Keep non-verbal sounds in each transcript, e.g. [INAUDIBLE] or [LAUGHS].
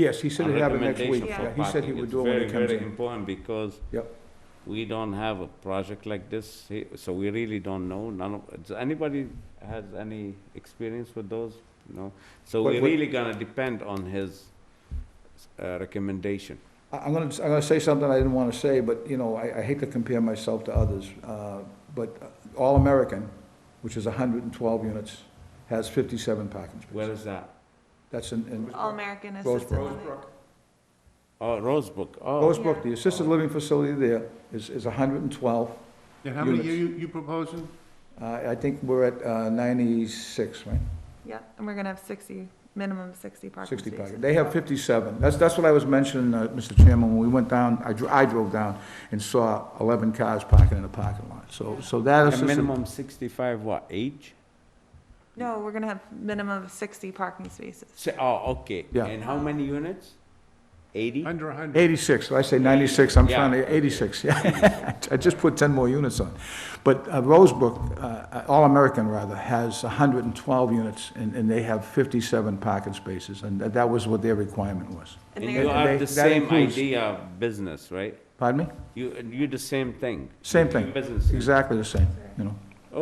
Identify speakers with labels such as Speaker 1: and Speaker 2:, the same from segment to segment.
Speaker 1: Yes, he said
Speaker 2: A
Speaker 1: he'd have it next week.
Speaker 2: recommendation
Speaker 3: for
Speaker 1: Yeah, He said he
Speaker 2: parking
Speaker 1: would
Speaker 2: is
Speaker 1: do it when he
Speaker 2: very,
Speaker 1: comes
Speaker 2: very
Speaker 1: in.
Speaker 2: important because
Speaker 1: Yep.
Speaker 2: we don't have a project like this, he- so we really don't know, none of, does anybody has any experience with those? No, so
Speaker 1: But
Speaker 2: we're
Speaker 1: what-
Speaker 2: really gonna depend on his uh, recommendation.
Speaker 1: I- I'm gonna, I'm gonna say something I didn't wanna say, but, you know, I, I hate to compare myself to others, uh, but All-American, which is hundred and twelve units, has fifty-seven parking
Speaker 2: Where
Speaker 1: spaces.
Speaker 2: is that?
Speaker 1: That's in, in
Speaker 3: All-American assisted living.
Speaker 1: Rosebrook.
Speaker 2: Oh, Rosebrook, oh,
Speaker 1: Rosebrook, the assisted living facility there is, is hundred and twelve.
Speaker 4: And how many
Speaker 1: Units.
Speaker 4: you, you you proposing?
Speaker 1: Uh, I think we're at uh, ninety-six, right?
Speaker 3: Yep, and we're gonna have sixty, minimum sixty parking
Speaker 1: Sixty
Speaker 3: spaces.
Speaker 1: package. They have fifty-seven. That's, that's what I was mentioning, uh, Mr. Chairman, when we went down, I dro- I drove down and saw eleven cars parking in the parking lot. So, so that
Speaker 2: a
Speaker 1: is.
Speaker 2: minimum sixty-five, what, age?
Speaker 3: No, we're gonna have minimum of sixty parking spaces.
Speaker 2: Si- Oh, okay,
Speaker 1: Yeah.
Speaker 2: and how many units? Eighty?
Speaker 4: Under a hundred?
Speaker 1: Eighty-six, I say ninety-six, I'm
Speaker 2: Yeah.
Speaker 1: trying to, eighty-six, yeah. [LAUGHS] I just put ten more units on. But uh, Rosebrook, uh, All-American rather, has hundred and twelve units, and, and they have fifty-seven parking spaces, and that- that was what their requirement was.
Speaker 3: And
Speaker 2: And
Speaker 3: they're-
Speaker 2: you
Speaker 1: they-
Speaker 2: have the
Speaker 1: that
Speaker 2: same
Speaker 1: includes-
Speaker 2: idea of business, right?
Speaker 1: Pardon me?
Speaker 2: You, you the same thing.
Speaker 1: Same thing,
Speaker 2: Business.
Speaker 1: exactly the same, you know.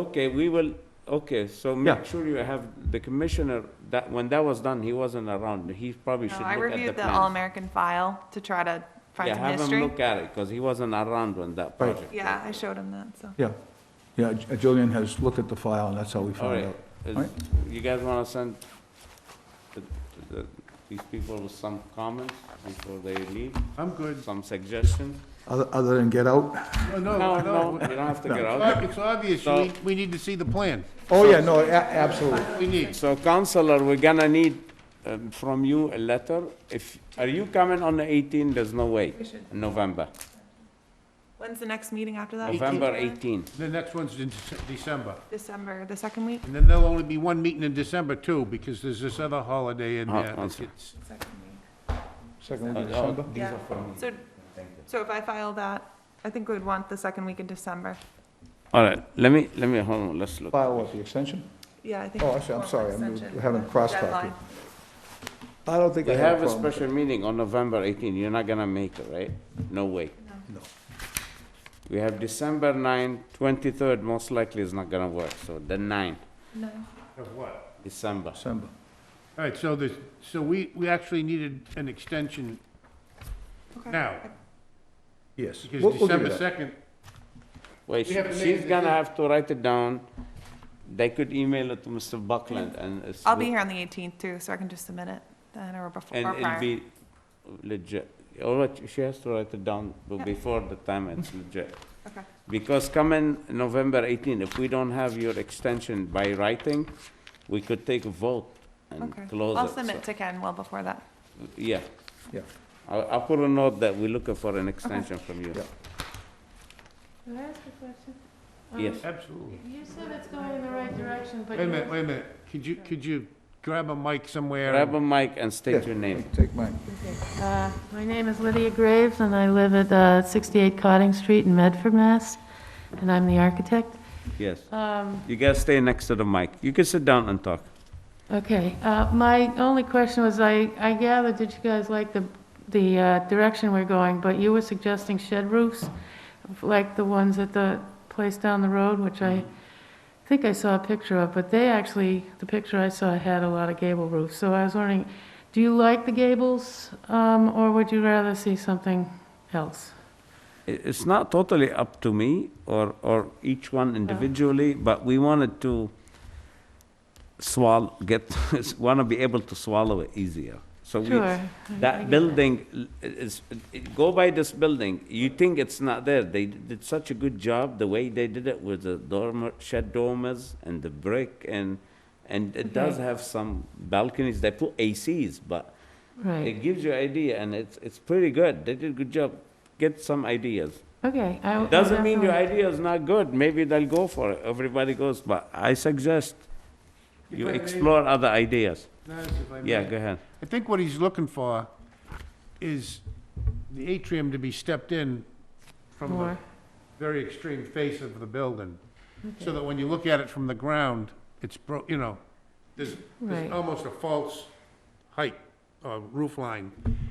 Speaker 2: Okay, we will, okay, so
Speaker 1: Yeah.
Speaker 2: make sure you have, the commissioner, that, when that was done, he wasn't around, he probably
Speaker 3: No,
Speaker 2: should look
Speaker 3: I
Speaker 2: at the
Speaker 3: reviewed the
Speaker 2: plan.
Speaker 3: All-American file to try to find
Speaker 2: Yeah,
Speaker 3: some
Speaker 2: have him
Speaker 3: history.
Speaker 2: look at it, because he wasn't around when that
Speaker 1: Right.
Speaker 2: project.
Speaker 3: Yeah, I
Speaker 2: was.
Speaker 3: showed him that, so.
Speaker 1: Yeah, yeah, J- Julian has looked at the file, and that's how we
Speaker 2: All
Speaker 1: found
Speaker 2: right,
Speaker 1: out.
Speaker 2: Is-
Speaker 1: Right.
Speaker 2: you guys wanna send the- the- these people with some comments before they leave,
Speaker 4: I'm good.
Speaker 2: some suggestions?
Speaker 1: Other, other than get out?
Speaker 2: No,
Speaker 4: No, no,
Speaker 2: no, you
Speaker 4: no.
Speaker 2: don't have to get
Speaker 4: It's
Speaker 2: out.
Speaker 4: ob- It's obvious,
Speaker 2: So-
Speaker 4: we, we need to see the plan.
Speaker 1: Oh, yeah, no, a- absolutely.
Speaker 4: We need.
Speaker 2: So Counselor, we're gonna need um, from you a letter. If, are you coming on the 18? There's no way,
Speaker 3: We should-
Speaker 2: November.
Speaker 3: When's the next meeting after that?
Speaker 2: November 18.
Speaker 4: The next one's in Dece- December.
Speaker 3: December, the second week?
Speaker 4: And then there'll only be one meeting in December too, because there's this other holiday in
Speaker 2: Oh,
Speaker 4: there.
Speaker 2: okay.
Speaker 4: It's-
Speaker 3: Second week.
Speaker 1: Second
Speaker 2: Oh,
Speaker 1: week of
Speaker 2: oh,
Speaker 1: December?
Speaker 2: These
Speaker 3: Yeah.
Speaker 2: are from me.
Speaker 3: So, so if I file that, I think we'd want the second week in December.
Speaker 2: All right, let me, let me, hold on, let's look.
Speaker 1: File what, the extension?
Speaker 3: Yeah, I think.
Speaker 1: Oh, I see, I'm sorry, I'm- we haven't cross-checked it.
Speaker 3: Deadline.
Speaker 1: I don't think
Speaker 2: We
Speaker 1: I have
Speaker 2: have a
Speaker 1: problem with
Speaker 2: special meeting on November 18. You're not gonna make it, right? No way.
Speaker 1: No.
Speaker 2: We have December 9, 23rd, most likely is not gonna work, so the 9,
Speaker 3: No,
Speaker 4: Of what?
Speaker 2: December.
Speaker 1: December.
Speaker 4: All right, so there's, so we, we actually needed an extension
Speaker 3: okay.
Speaker 4: now,
Speaker 1: Yes. We'll-
Speaker 4: because
Speaker 1: we'll do
Speaker 4: December
Speaker 1: that.
Speaker 4: second,
Speaker 2: Wait,
Speaker 4: We have a
Speaker 2: she-
Speaker 4: meeting
Speaker 2: she's gonna
Speaker 4: today.
Speaker 2: have to write it down. They could email it to Mr. Buckland and. it's
Speaker 3: I'll be
Speaker 2: good.
Speaker 3: here on the eighteenth too, so I can just submit it then or before
Speaker 2: And
Speaker 3: or
Speaker 2: it'll
Speaker 3: prior.
Speaker 2: be legit. All right, she has to write it down b-
Speaker 3: Yeah.
Speaker 2: before the time it's legit.
Speaker 3: Okay.
Speaker 2: Because coming November 18, if we don't have your extension by writing, we could take a vote and
Speaker 3: Okay.
Speaker 2: close it.
Speaker 3: I'll
Speaker 2: so-
Speaker 3: submit to Ken well before that.
Speaker 2: Yeah,
Speaker 1: Yeah,
Speaker 2: I'll, I'll put a note that we're looking for an extension from you.
Speaker 1: Yeah.
Speaker 5: Can I ask a question? Um,
Speaker 2: Yes,
Speaker 4: absolutely.
Speaker 5: You said it's going in the right direction, but
Speaker 4: Wait a
Speaker 5: you
Speaker 4: minute, wait a minute. Could you, could you grab a mic somewhere?
Speaker 2: grab a mic and
Speaker 1: Yeah.
Speaker 2: state your name.
Speaker 1: take mine.
Speaker 5: Uh, My name is Lydia Graves, and I live at uh, 68 Cotting Street in Medford, Mass., and I'm the architect.
Speaker 2: Yes.
Speaker 5: Um,
Speaker 2: You guys stay next to the mic. You can sit down and talk.
Speaker 5: Okay, uh, my only question was, I I gathered that you guys like the the uh, direction we're going, but you were suggesting shed roofs, like the ones at the place down the road, which I think I saw a picture of, but they actually, the picture I saw had a lot of gable roofs. So I was wondering, do you like the gables, um, or would you rather see something else?
Speaker 2: It- It's not totally up to me or, or each one individually, but we wanted to swallow, get, [LAUGHS] want to be able to swallow it easier. So we,
Speaker 5: Sure, I- I
Speaker 2: that
Speaker 5: get
Speaker 2: building l- is, it- go by this building, you think it's not there. They did such a good job, the way they did it with the dormer, shed dormers and the brick and, and it does
Speaker 5: Okay.
Speaker 2: have some balconies. They put ACs, but
Speaker 5: Right,
Speaker 2: it gives you idea and it's, it's pretty good. They did a good job. Get some ideas.
Speaker 5: okay. I- I
Speaker 2: Doesn't mean your
Speaker 5: definitely-
Speaker 2: idea is not good, maybe they'll go for it, everybody goes, but I suggest you
Speaker 4: If I may-
Speaker 2: explore other ideas.
Speaker 4: Nice, if I may.
Speaker 2: Yeah, go ahead.
Speaker 4: I think what he's looking for is the atrium to be stepped in from the
Speaker 5: More.
Speaker 4: very extreme face of the building, so that when you look at it from the ground, it's bro, you know, there's, there's
Speaker 5: Right.
Speaker 4: almost a false height. uh, roof line.